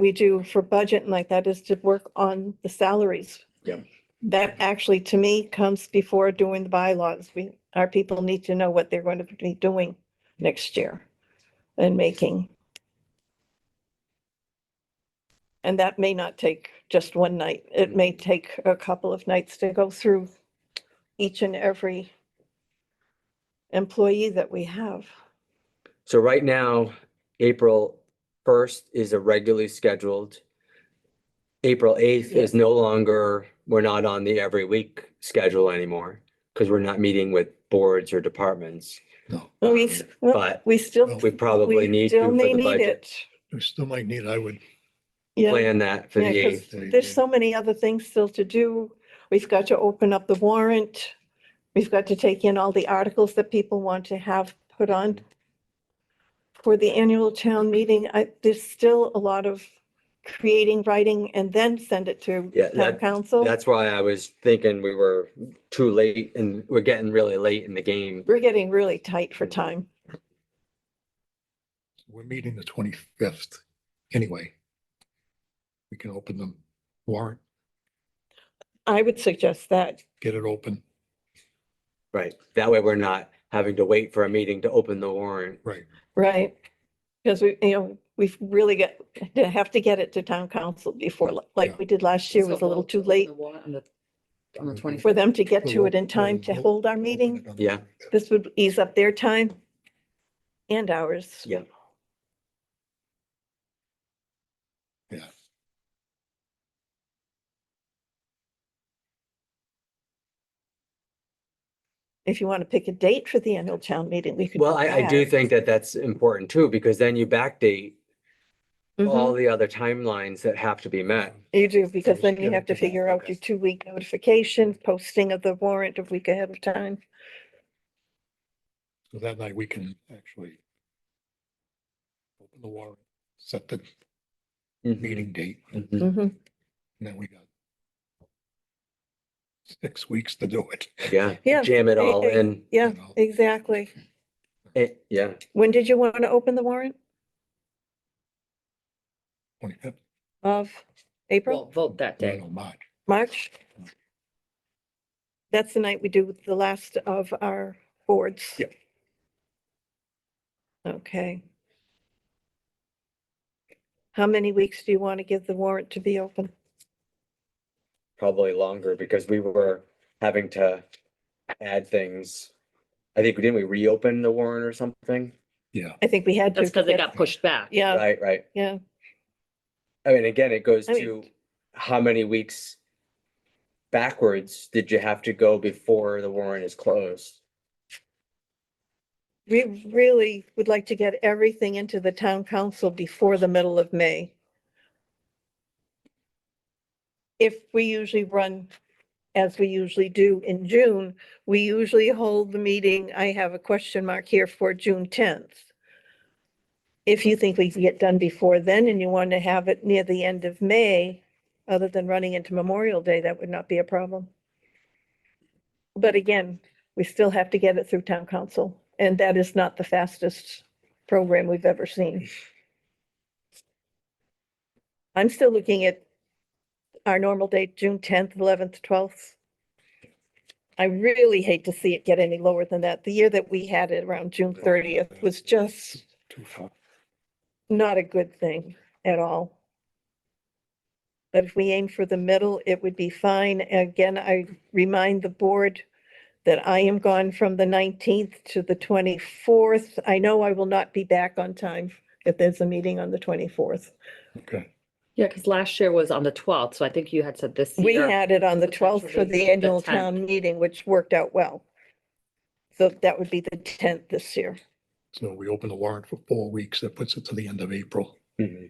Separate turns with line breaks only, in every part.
we do for budget and like that is to work on the salaries.
Yeah.
That actually, to me, comes before doing the bylaws. We, our people need to know what they're going to be doing next year and making. And that may not take just one night. It may take a couple of nights to go through each and every employee that we have.
So right now, April first is a regularly scheduled. April eighth is no longer, we're not on the every week schedule anymore, because we're not meeting with boards or departments.
No,
We,
Um,
s-
but
we still,
Well,
We
we
probably need to
still
for
may
the
need
budget,
it.
we still might need, I would,
Yeah.
plan that for the
Yeah, 'cause
eighth.
eighth.
There's so many other things still to do. We've got to open up the warrant. We've got to take in all the articles that people want to have put on for the annual town meeting. I, there's still a lot of creating, writing, and then send it to
Yeah,
town
that-
council.
That's why I was thinking we were too late and we're getting really late in the game.
We're getting really tight for time.
we're meeting the twenty-fifth anyway. We can open the warrant,
I would suggest that.
get it open,
Right, that way we're not having to wait for a meeting to open the warrant.
right?
Right. Because we, you know, we've really got, to have to get it to town council before, li-
Yeah.
like we did last year
So
was a little
we'll
too
open
late
the warrant On the- on the
For
25th.
for them to get
We'll
to it in
op-
time to
we'll op-
hold our
open
meeting.
it on the
Yeah.
25th.
This would ease up their time and ours.
Yeah.
Yeah.
If you want to pick a date for the annual town meeting, we could.
Well, I, I do
that.
think that that's important too, because then you backdate
Mhm,
all the other timelines that have to be met.
You do, because
Just
then you
get
have to
into that,
figure out
okay.
your two-week notification, posting of the warrant a week ahead of time.
So that night we can actually open the warrant, set the
Mm-hmm.
meeting date, and
Mhm.
Mhm.
then we got six weeks to do it.
Yeah,
Yeah,
jam it all
eh,
in.
yeah,
You know?
exactly.
Eh, Yeah,
When did you want to open the warrant?
Twenty-fifth, Oh
Of
We'll
April,
vote that
no,
day.
no, March.
March? That's the night we do the last of our boards.
Yep.
Okay. How many weeks do you want to give the warrant to be open?
probably longer because we were having to add things. I think, didn't we reopen the warrant or something?
Yeah,
I think we had to.
That's because
get-
it got pushed back.
Yeah,
Right, right.
yeah.
I mean, again, it goes
I mean-
to how many weeks backwards did you have to go before the warrant is closed?
We really would like to get everything into the town council before the middle of May. If we usually run, as we usually do in June, we usually hold the meeting, I have a question mark here for June tenth. If you think we can get done before then and you want to have it near the end of May, other than running into Memorial Day, that would not be a problem. But again, we still have to get it through town council, and that is not the fastest program we've ever seen. I'm still looking at our normal date, June tenth, eleventh, twelfth. I really hate to see it get any lower than that. The year that we had it around June thirtieth was just
too far.
not a good thing at all. But if we aim for the middle, it would be fine. Again, I remind the board that I am gone from the nineteenth to the twenty-fourth. I know I will not be back on time if there's a meeting on the twenty-fourth.
Okay,
Yeah, because last year was on the twelfth, so I think you had said this
We
year.
had it on the
potential
twelfth for
date
the
the
annual
10th.
town meeting, which worked out well. So that would be the tenth this year.
so we open the warrant for four weeks, that puts it to the end of April,
Mm-hmm.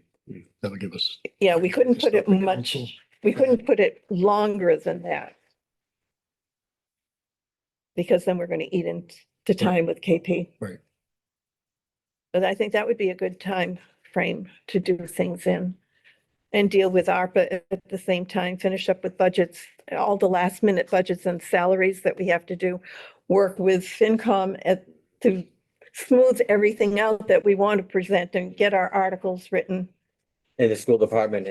that'll give us.
Yeah, we couldn't put it
Stuff the
much,
council.
we couldn't put it longer than that. Because then we're going to eat into time with KP.
Right.
But I think that would be a good time frame to do things in and deal with ARPA at the same time, finish up with budgets, all the last minute budgets and salaries that we have to do. Work with FinCom at, to smooth everything out that we want to present and get our articles written
And the school department